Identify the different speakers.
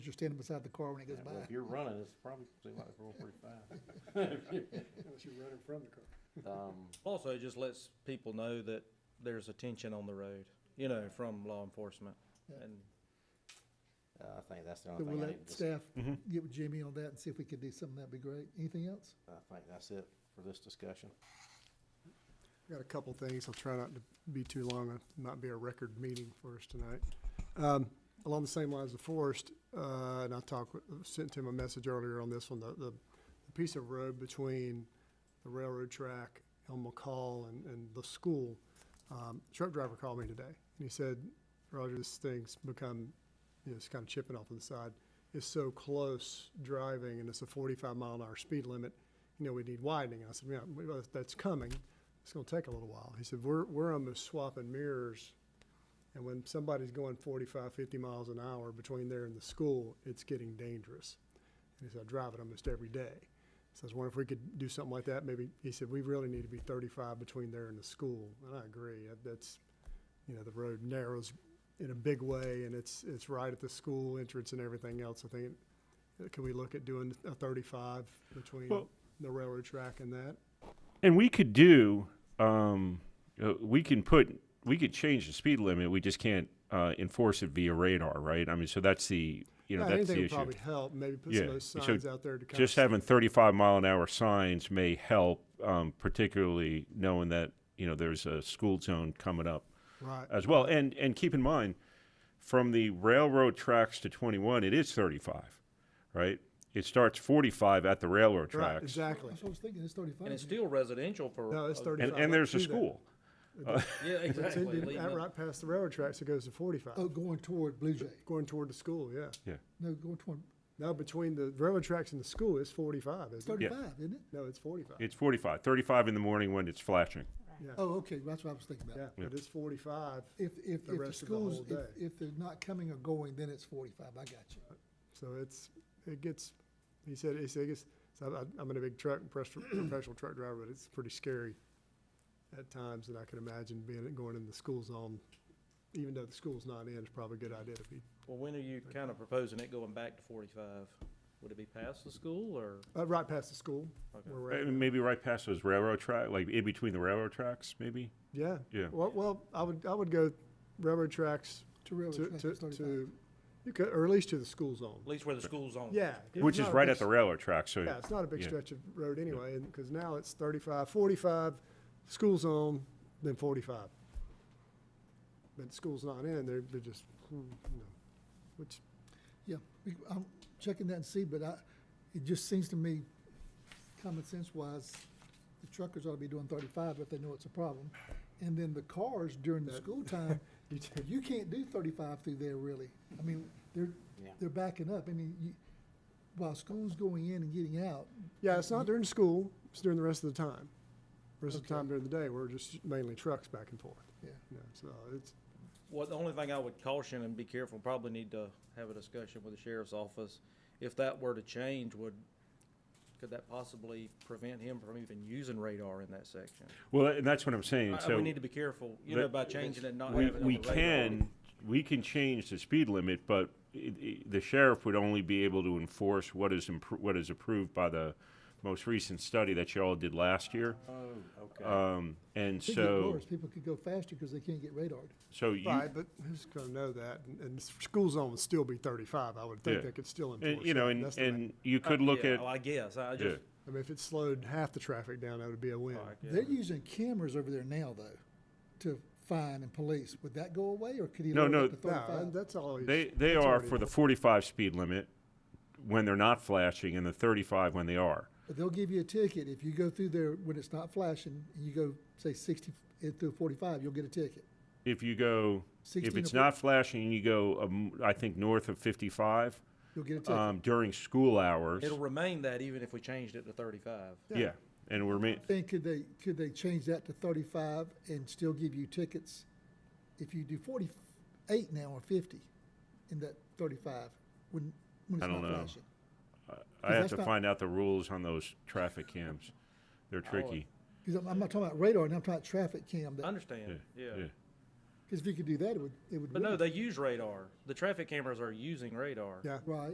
Speaker 1: standing beside the car when it goes
Speaker 2: Yeah, well,
Speaker 1: by.
Speaker 2: If you're running, it's probably, seems like it's rolling pretty fast.
Speaker 3: unless you're running from the car.
Speaker 2: Um,
Speaker 4: Also, it just lets people know that there's attention on the road, you know, from law enforcement.
Speaker 1: Yeah.
Speaker 4: And
Speaker 2: uh, I think that's the
Speaker 1: So
Speaker 2: only
Speaker 1: we'll
Speaker 2: thing I need
Speaker 1: let
Speaker 2: to, dis-
Speaker 1: staff
Speaker 3: Mm-hmm.
Speaker 1: get with Jimmy on that and see if we can do something, that'd be great. Anything else?
Speaker 2: I think that's it for this discussion.
Speaker 3: I've Got a couple things. I'll try not to be too long. It might be a record meeting for us tonight. Um, along the same lines of Forrest, uh, and I talked, with- sent him a message earlier on this one, the, the, the piece of road between the railroad track, and McCall and, and the school. Um, truck driver called me today and he said, Roger, this thing's become, you know, it's kind of chipping off on the side. It's so close driving and it's a forty-five mile an hour speed limit. You know, we need widening. And I said, yeah, we- well, that's coming. It's gonna take a little while. He said, we're, we're almost swapping mirrors. And when somebody's going 45, 50 miles an hour between there and the school, it's getting dangerous. And he said, I drive it almost every day. So I was wondering if we could do something like that, maybe, he said, we really need to be thirty-five between there and the school, and I agree, That- that's, you know, the road narrows in a big way, and it's, it's right at the school entrance and everything else, I think, uh, can we look at doing a thirty-five between
Speaker 5: Well-
Speaker 3: the railroad track and that?
Speaker 5: And we could do, um, uh, we can put, we could change the speed limit. We just can't uh, enforce it via radar, right? I mean, so that's the, you know,
Speaker 3: Yeah,
Speaker 5: that's
Speaker 3: anything
Speaker 5: the
Speaker 3: would
Speaker 5: issue.
Speaker 3: Probably help, maybe put some
Speaker 5: Yeah,
Speaker 3: of those
Speaker 5: so
Speaker 3: signs out there to kind of.
Speaker 5: Just having 35 mile an hour signs may help, um, particularly knowing that, you know, there's a school zone coming up
Speaker 3: Right,
Speaker 5: as well. And, and keep in mind, from the railroad tracks to 21, it is 35, right? It starts 45 at the railroad tracks.
Speaker 3: right, exactly,
Speaker 1: That's what I was thinking, it's thirty-five.
Speaker 4: and it's still residential for.
Speaker 3: no, it's
Speaker 5: And,
Speaker 3: thirty-five.
Speaker 5: and there's
Speaker 3: Do
Speaker 5: a
Speaker 3: that.
Speaker 5: school.
Speaker 4: Yeah,
Speaker 3: It's
Speaker 4: exactly.
Speaker 3: ended
Speaker 4: leading
Speaker 3: at
Speaker 4: up-
Speaker 3: right past the railroad tracks, it goes to forty-five.
Speaker 1: Oh, going toward Blue Jay,
Speaker 3: Going toward the school, yeah.
Speaker 5: Yeah.
Speaker 1: no, going toward
Speaker 3: Now, between the railroad tracks and the school, it's forty-five, isn't it?
Speaker 1: thirty-five, isn't it?
Speaker 3: No, it's forty-five.
Speaker 5: It's 45, 35 in the morning when it's flashing.
Speaker 3: Yeah,
Speaker 1: Oh, okay, that's what I was thinking
Speaker 3: yeah,
Speaker 1: about.
Speaker 3: but it's forty-five,
Speaker 1: If, if, if
Speaker 3: The
Speaker 1: the
Speaker 3: rest of the whole
Speaker 1: schools, if,
Speaker 3: day.
Speaker 1: if they're not coming or going, then it's forty-five, I got you.
Speaker 3: so it's, it gets, he said, he said, it's, so I- I'm in a big truck, professional professional truck driver, but it's pretty scary at times, and I can imagine being, going in the school zone, even though the school's not in, it's probably a good idea to be.
Speaker 4: Well, when are you kind of proposing it going back to forty-five? Would it be past the school or?
Speaker 3: Uh, right past the school,
Speaker 4: Okay.
Speaker 3: where we're
Speaker 5: Uh,
Speaker 3: at.
Speaker 5: Maybe right past those railroad track, like in between the railroad tracks, maybe?
Speaker 3: Yeah.
Speaker 5: Yeah.
Speaker 3: Well, well, I would, I would go railroad tracks
Speaker 1: To railroad
Speaker 3: to,
Speaker 1: tracks,
Speaker 3: to,
Speaker 1: it's thirty-five.
Speaker 3: to, you could, or at least to the school
Speaker 4: At
Speaker 3: zone.
Speaker 4: least where the school's on.
Speaker 3: Yeah. it's
Speaker 5: Which is
Speaker 3: not a
Speaker 5: right
Speaker 3: big
Speaker 5: at the railroad track, so.
Speaker 3: Yeah, it's not a big
Speaker 5: yeah.
Speaker 3: stretch of road anyway, and, because now it's 35, 45, school zone, then forty-five. But school's not in, they're, they're just, hmm, you know, which,
Speaker 1: Yeah, we- I'm checking that and see, but I, it just seems to me, common sense wise, the truckers ought to be doing thirty-five if they know it's a problem. And then the cars during the school time,
Speaker 3: you do-
Speaker 1: you can't do thirty-five through there really. I mean, they're,
Speaker 2: Yeah.
Speaker 1: they're backing up. I mean, you, while school's going in and getting out,
Speaker 3: yeah, it's not during school, it's during the rest of the time. Rest of the
Speaker 1: Okay.
Speaker 3: time during the day, we're just mainly trucks back and forth,
Speaker 1: yeah.
Speaker 3: you know, so it's,
Speaker 4: Well, the only thing I would caution and be careful, probably need to have a discussion with the sheriff's office. If that were to change, would, could that possibly prevent him from even using radar in that section?
Speaker 5: Well, and that's what I'm saying,
Speaker 4: I-
Speaker 5: so.
Speaker 4: Uh, We need to be careful, you know,
Speaker 5: that-
Speaker 4: by changing it, not
Speaker 5: we-
Speaker 4: having it on
Speaker 5: We
Speaker 4: the radar.
Speaker 5: can, we can change the speed limit, but it- it- the sheriff would only be able to enforce what is, impro- what is approved by the most recent study that y'all did last year.
Speaker 2: Oh, okay.
Speaker 5: Um, and
Speaker 1: Could get
Speaker 5: so,
Speaker 1: worse. People could go faster because they can't get radared.
Speaker 5: so you,
Speaker 3: right, but who's gonna know that? And, and the school zone would still be thirty-five, I would think
Speaker 5: Yeah.
Speaker 3: they could still enforce
Speaker 5: and,
Speaker 3: it.
Speaker 5: you know, and,
Speaker 3: That's the main-
Speaker 5: and you Uh, could look
Speaker 4: Uh, Yeah, oh,
Speaker 5: at,
Speaker 4: well, I guess, I
Speaker 5: yeah,
Speaker 4: just.
Speaker 3: I mean, if it slowed half the traffic down, that would be a win.
Speaker 4: all right, yeah.
Speaker 1: They're using cameras over there now though, to fine and police. Would that go away or could he
Speaker 5: No,
Speaker 1: lower
Speaker 5: no,
Speaker 1: it to
Speaker 3: No,
Speaker 1: thirty-five?
Speaker 3: that's always.
Speaker 5: They they
Speaker 3: that's
Speaker 5: are
Speaker 3: already-
Speaker 5: for the 45 speed limit when they're not flashing, and the 35 when they are.
Speaker 1: But they'll give you a ticket if you go through there when it's not flashing, and you go, say, sixty f- through forty-five, you'll get a ticket.
Speaker 5: If you go,
Speaker 1: 16
Speaker 5: if
Speaker 1: or
Speaker 5: it's
Speaker 1: 40.
Speaker 5: not flashing, and you go, um, I think north of 55
Speaker 1: You'll get a ticket.
Speaker 5: um, during school hours.
Speaker 4: It'll remain that even if we changed it to thirty-five.
Speaker 5: yeah. and we're ma-
Speaker 1: Then could they, could they change that to thirty-five and still give you tickets if you do forty-eight now or fifty in that thirty-five when, when
Speaker 5: I
Speaker 1: it's not
Speaker 5: don't know.
Speaker 1: flashing?
Speaker 5: I have
Speaker 1: that's
Speaker 5: to
Speaker 1: not-
Speaker 5: find out the rules on those traffic cams. They're tricky.
Speaker 1: Because I'm, I'm not talking about radar, and I'm talking about traffic cam,
Speaker 4: I
Speaker 1: because
Speaker 4: understand,
Speaker 5: yeah.
Speaker 4: yeah.
Speaker 1: if you could do that, it would, it would.
Speaker 4: But no,
Speaker 1: really-
Speaker 4: they use radar. The traffic cameras are using radar.
Speaker 3: Yeah.
Speaker 1: Right.